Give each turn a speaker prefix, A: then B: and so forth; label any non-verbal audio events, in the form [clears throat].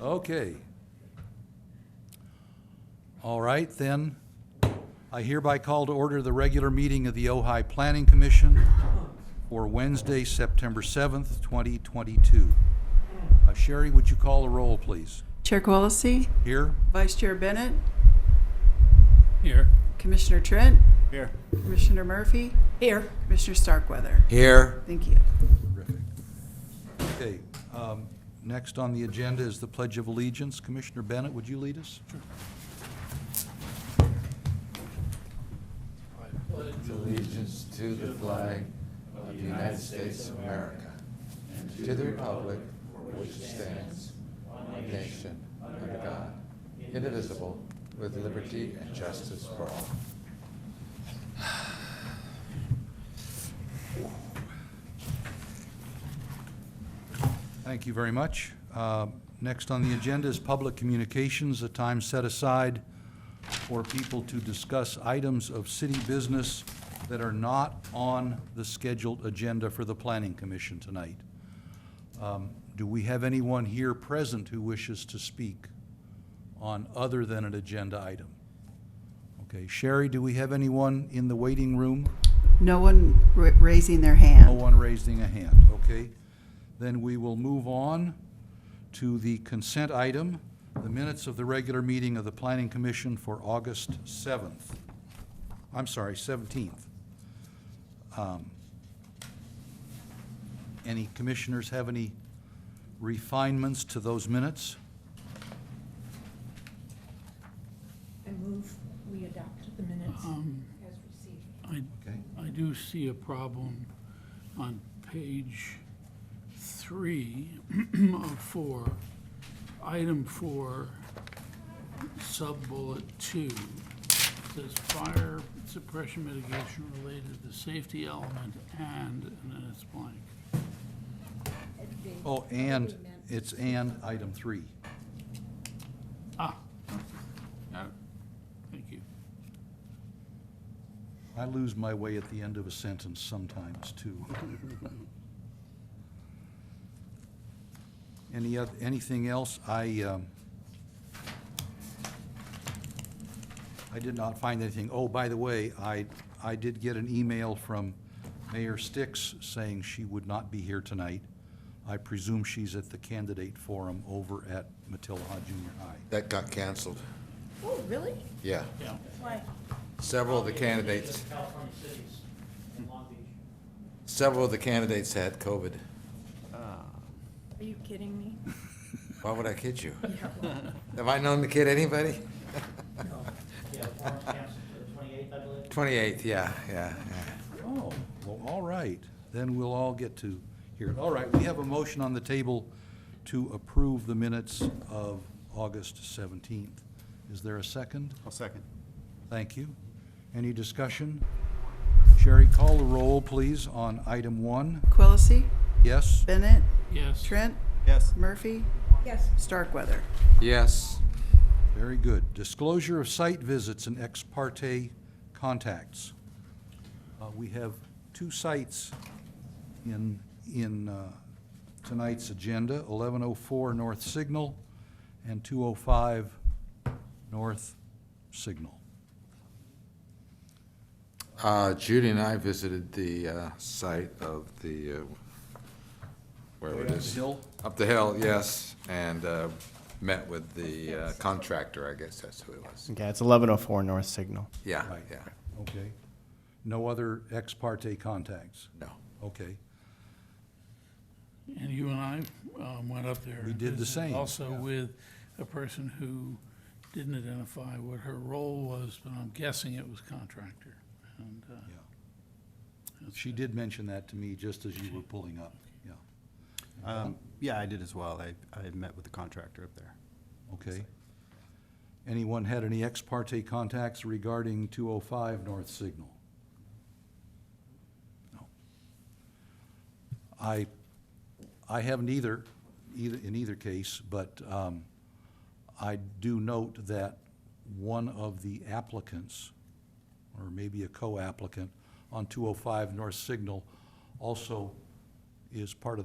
A: Okay. All right, then. I hereby call to order the regular meeting of the Ojai Planning Commission for Wednesday, September 7th, 2022. Uh, Sherry, would you call the roll, please?
B: Chair Quilisi,
A: Here?
B: Vice Chair Bennett,
C: Here.
B: Commissioner Trent,
C: Here.
B: Commissioner Murphy. Here. Commissioner Starkweather.
A: Here.
B: Thank you.
A: Terrific. Okay, um, next on the agenda is the Pledge of Allegiance. Commissioner Bennett, would you lead us?
D: allegiance to the flag of the United States of America and to the republic for which it stands, one nation, under God, indivisible, with liberty and justice for all.
A: Thank you very much. Uh, Next on the agenda is public communications, a time set aside for people to discuss items of city business that are not on the scheduled agenda for the Planning Commission tonight. Um, Do we have anyone here present who wishes to speak on other than an agenda item? Okay, Sherry, do we have anyone in the waiting room?
B: No one ra- raising their
A: No
B: hand.
A: one raising a hand, okay? Then we will move on to the consent item, the minutes of the regular meeting of the Planning Commission for August 7th. I'm sorry, 17th. Um, Any commissioners have any refinements to those minutes?
E: I move we adopt the minutes as received.
C: I,
A: Okay.
C: I do see a problem on page three [clears throat] of four, item four, sub-bullet two. Says fire suppression mitigation related to safety element and, and then it's blank.
A: Oh, and, it's and item three.
C: Ah, got it. Thank you.
A: I lose my way at the end of a sentence sometimes, too. Any, oth- anything else? I, um, I did not find anything. Oh, by the way, I, I did get an email from Mayor Sticks saying she would not be here tonight. I presume she's at the candidate forum over at Matilah Junior High.
D: That got canceled.
E: Oh, really?
D: Yeah,
C: Yeah.
E: Why?
D: several of the candidates,
F: California cities in Long Beach.
D: several of the candidates had COVID.
E: Are you kidding me?
D: Why would I kid you? Have I known the kid, anybody?
F: Yeah, Lawrence Council for the twenty-eighth, I believe.
D: Twenty-eighth, yeah, yeah, yeah.
A: Oh, well, all right, then we'll all get to hear it. All right, we have a motion on the table to approve the minutes of August 17th. Is there a second?
G: I'll second.
A: Thank you. Any discussion? Sherry, call the roll, please, on item one.
B: Quilisi,
A: Yes?
B: Bennett,
C: Yes.
B: Trent,
G: Yes.
B: Murphy,
E: Yes.
B: Starkweather.
D: Yes,
A: Very good. Disclosure of site visits and ex parte contacts. Uh, We have two sites in, in uh, tonight's agenda, 1104 North Signal and 205 North Signal.
D: Uh, Judy and I visited the uh, site of the, uh, where it is.
A: Hill?
D: Up the hill, yes, and uh, met with the uh, contractor, I guess that's who it was.
G: Okay, it's eleven oh four North Signal.
D: Yeah,
A: Right.
D: yeah,
A: Okay. No other ex parte contacts?
D: no.
A: Okay.
C: And you and I um, went up there.
A: We
C: and
A: did the
C: visited
A: same,
C: Also
A: yeah.
C: with a person who didn't identify what her role was, but I'm guessing it was contractor. And, uh,
A: Yeah. She did mention that to me just as you were pulling up, yeah.
G: Um, yeah, I did as well. I, I met with the contractor up there.
A: Okay. Anyone had any ex parte contacts regarding 205 North Signal? No. I, I haven't either, either, in either case, but um, I do note that one of the applicants, or maybe a oh co-applicant, on 205 North Signal also is part of the